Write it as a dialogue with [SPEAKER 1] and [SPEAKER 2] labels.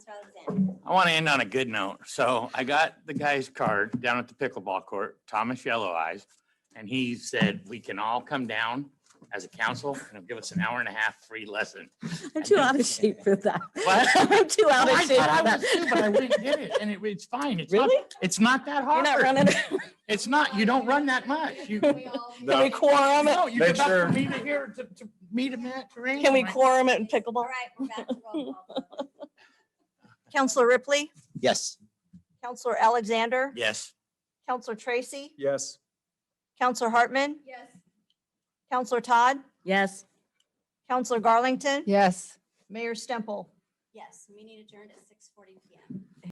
[SPEAKER 1] Alexander.
[SPEAKER 2] I want to end on a good note. So I got the guy's card down at the pickleball court, Thomas Yellow Eyes, and he said, we can all come down as a council and he'll give us an hour and a half free lesson.
[SPEAKER 3] I'm too out of shape for that.
[SPEAKER 2] What?
[SPEAKER 3] I'm too out of
[SPEAKER 2] I
[SPEAKER 3] shape for
[SPEAKER 2] thought I was too, But I
[SPEAKER 3] that.
[SPEAKER 2] didn't get it, and it- it's fine. It's not,
[SPEAKER 3] Really?
[SPEAKER 2] it's not that
[SPEAKER 3] You're
[SPEAKER 2] hard.
[SPEAKER 3] not running
[SPEAKER 2] It's not, you don't run that much. You.
[SPEAKER 1] We all-
[SPEAKER 3] Can we quorum it?
[SPEAKER 2] No, you
[SPEAKER 4] Make
[SPEAKER 2] get up
[SPEAKER 4] sure-
[SPEAKER 2] from me to here to, to meet him at. terrain,
[SPEAKER 3] Can we
[SPEAKER 2] right?
[SPEAKER 3] quorum it in
[SPEAKER 1] All
[SPEAKER 3] pickleball?
[SPEAKER 1] right, we're back to roll call. vote.
[SPEAKER 5] Counselor Ripley,
[SPEAKER 4] Yes.
[SPEAKER 5] Counselor Alexander,
[SPEAKER 2] Yes.
[SPEAKER 5] Counselor Tracy,
[SPEAKER 4] Yes.
[SPEAKER 5] Counselor Hartman,
[SPEAKER 1] Yes,
[SPEAKER 5] Counselor Todd,
[SPEAKER 3] Yes.
[SPEAKER 5] Counselor Garlington,
[SPEAKER 6] Yes.
[SPEAKER 5] Mayor Stemple.
[SPEAKER 1] yes, meeting adjourned at six forty PM.